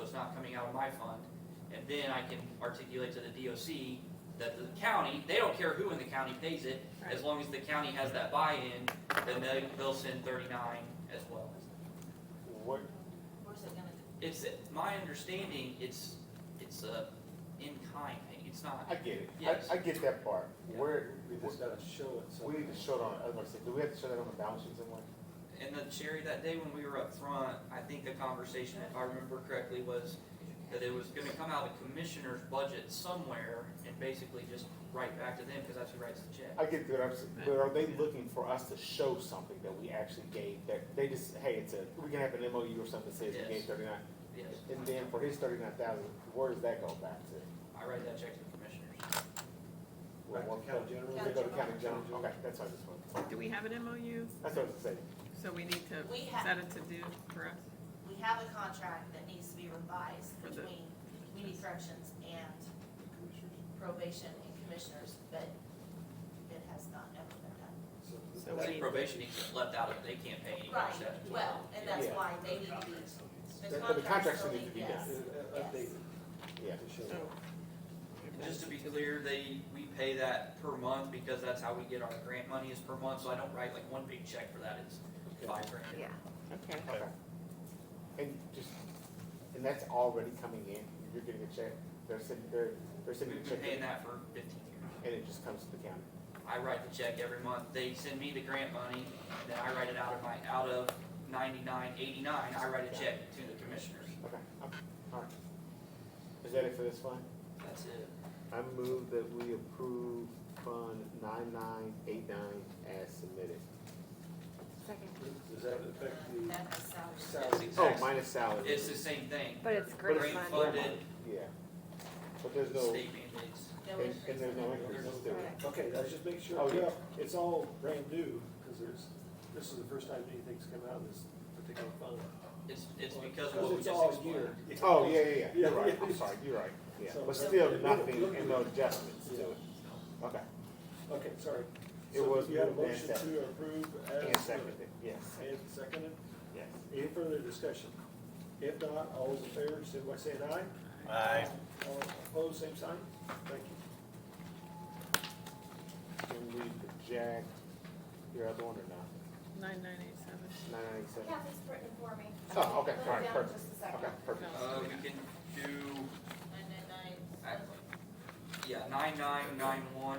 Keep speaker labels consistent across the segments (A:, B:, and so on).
A: it's not coming out of my fund. And then I can articulate to the DOC that the county, they don't care who in the county pays it, as long as the county has that buy-in, then they, they'll send thirty-nine as well.
B: What,
C: Where's it gonna,
A: It's, my understanding, it's, it's a in-kind thing, it's not.
B: I get it,
A: Yes.
B: I, I get that part,
A: Yeah.
B: where,
D: We just gotta show it, so.
B: we need to show it on, I was gonna say, do we have to show that on the balance sheet somewhere?
A: And then Sherry, that day when we were up front, I think the conversation, if I remember correctly, was that it was gonna come out of the commissioner's budget somewhere and basically just write back to them, because that's who writes the check.
B: I get that, I'm s- but are they looking for us to show something that we actually gave, that, they just, hey, it's a, we can have an MOU or something that says we
A: Yes.
B: gave thirty-nine,
A: Yes,
B: and then for his thirty-nine thousand, where does that go back to?
A: I write that check to the commissioners.
D: Back to county general.
B: Does it go to county general, okay, that's what I just wanted,
E: Do we have an MOU?
B: that's what I was saying,
E: So we need to
C: we have,
E: set a to-do for us?
C: we have a contract that needs to be revised
E: For the-
C: between community corrections and probation and commissioners, but it has not ever been done.
E: So
A: Like
E: we-
A: probation, he left out, of it, they can't pay any
C: Right,
A: cash that.
C: well, and that's
B: Yeah.
C: why they need to be,
B: But the
C: the contract
B: contracts
C: still
B: need to
C: need,
B: be
C: yes.
B: done.
D: Updated.
B: yeah.
D: To show.
E: So-
A: And Just to be clear, they, we pay that per month because that's how we get our grant money is per month, so I don't write like one big check for that, it's five grand.
F: Yeah.
E: Okay,
B: Okay. And just, and that's already coming in, you're getting a check, they're sending, they're, they're sending
A: We've
B: a
A: been
B: check,
A: paying
B: and
A: that for fifteen years.
B: it just comes to the county.
A: I write the check every month, they send me the grant money, then I write it out of my, out of ninety-nine, eighty-nine, I write a check to the commissioners.
B: Okay, okay, all right. Is that it for this one?
A: That's it.
B: I move that we approve Fund nine nine eight nine as submitted.
F: Second.
D: Does that affect the
C: that has salary.
A: It's
D: salary?
B: Oh,
A: exact-
B: minus salary.
A: It's the same thing,
F: But it's
B: But
F: great
B: it's
A: grant
F: fun.
A: funded,
B: Yeah, but there's no,
A: state mandates.
C: No
B: and,
C: increase
B: and there's
C: in it.
B: no increase, it's still,
F: Right.
D: Okay, let's just make sure,
B: Oh, yeah.
D: yeah, it's all brand new, because there's, this is the first time anything's come out of this particular fund.
A: It's, it's because of
D: Because
A: what we
D: it's
A: just
D: all
A: explained.
D: year.
B: oh, yeah, yeah, yeah,
D: Yeah.
B: you're right, I'm sorry, you're right, yeah,
D: So-
B: but still nothing and no adjustments to it, okay.
D: Okay, sorry.
B: It
D: So
B: was
D: You had a
B: moved and
D: motion to
B: seconded.
D: approve
B: And
D: as.
B: seconded, yes,
D: And seconded.
B: yes.
D: Any further discussion? If not, all those in favor, signify by saying aye.
B: Aye.
D: All opposed, same sign? Thank you.
B: Can we project your other one or not?
E: nine nine eight seven.
B: Nine ninety-seven?
G: Kathy's written for me.
B: Oh, okay,
G: Put it
B: all right,
G: down
B: perfect.
G: just a second.
B: Okay, perfect.
A: Uh, we can do,
C: Nine, nine, nine,
A: I- yeah, nine-nine-nine-one.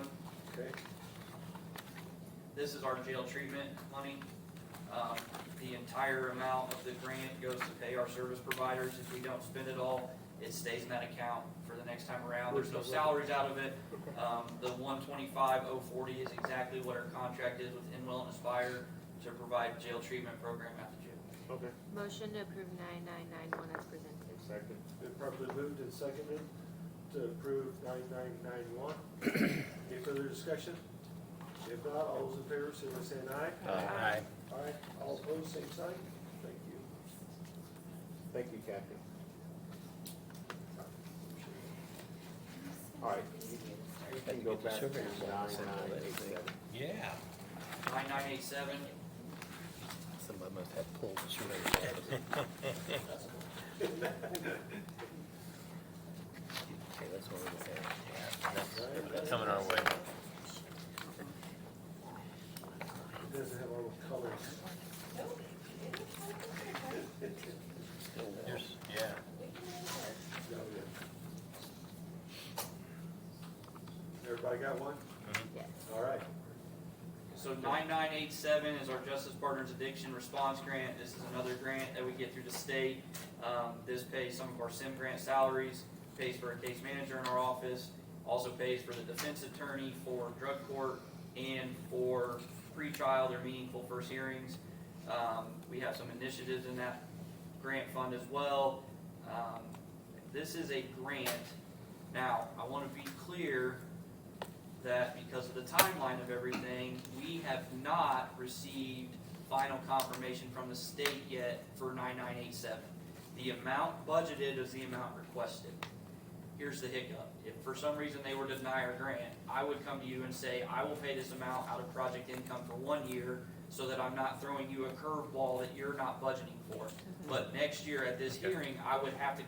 D: Okay,
A: This is our jail treatment money. Um, The entire amount of the grant goes to pay our service providers. If we don't spend it all, it stays in that account for the next time around. There's no salaries out of it. Um, The one twenty-five oh forty is exactly what our contract is with Inwell and Aspire to provide jail treatment program at the jail.
B: Okay,
F: Motion to approve nine nine nine one as presented.
B: second.
D: been properly moved and seconded to approve nine nine nine one. Any further discussion? If not, all those in favor, signify by saying aye.
H: Uh, Aye.
D: Aye, all opposed, same sign? Thank you.
B: Thank you, Kathy. All right, you can- you can go back to nine nine eight seven.
H: Yeah.
A: Nine-nine-eight-seven,
H: Somebody must have pulled the sugar out of it. Okay, that's what we're saying. Yeah, that's- That's coming our way.
D: It doesn't have all the colors.
H: There's- Yeah.
D: No, yeah. Everybody got one?
F: Yes.
D: All right.
A: So nine-nine-eight-seven is our Justice Partners Addiction Response Grant. This is another grant that we get through the state. Um, this pays some of our SIM grant salaries, pays for a case manager in our office, also pays for the defense attorney for drug court and for pretrial or meaningful first hearings. Um, we have some initiatives in that grant fund as well. Um, this is a grant. Now, I want to be clear that because of the timeline of everything, we have not received final confirmation from the state yet for 9987. The amount budgeted is the amount requested. Here's the hiccup. If for some reason they were to deny our grant, I would come to you and say, I will pay this amount out of project income for one year so that I'm not throwing you a curveball that you're not budgeting for. But next year at this hearing, I would have to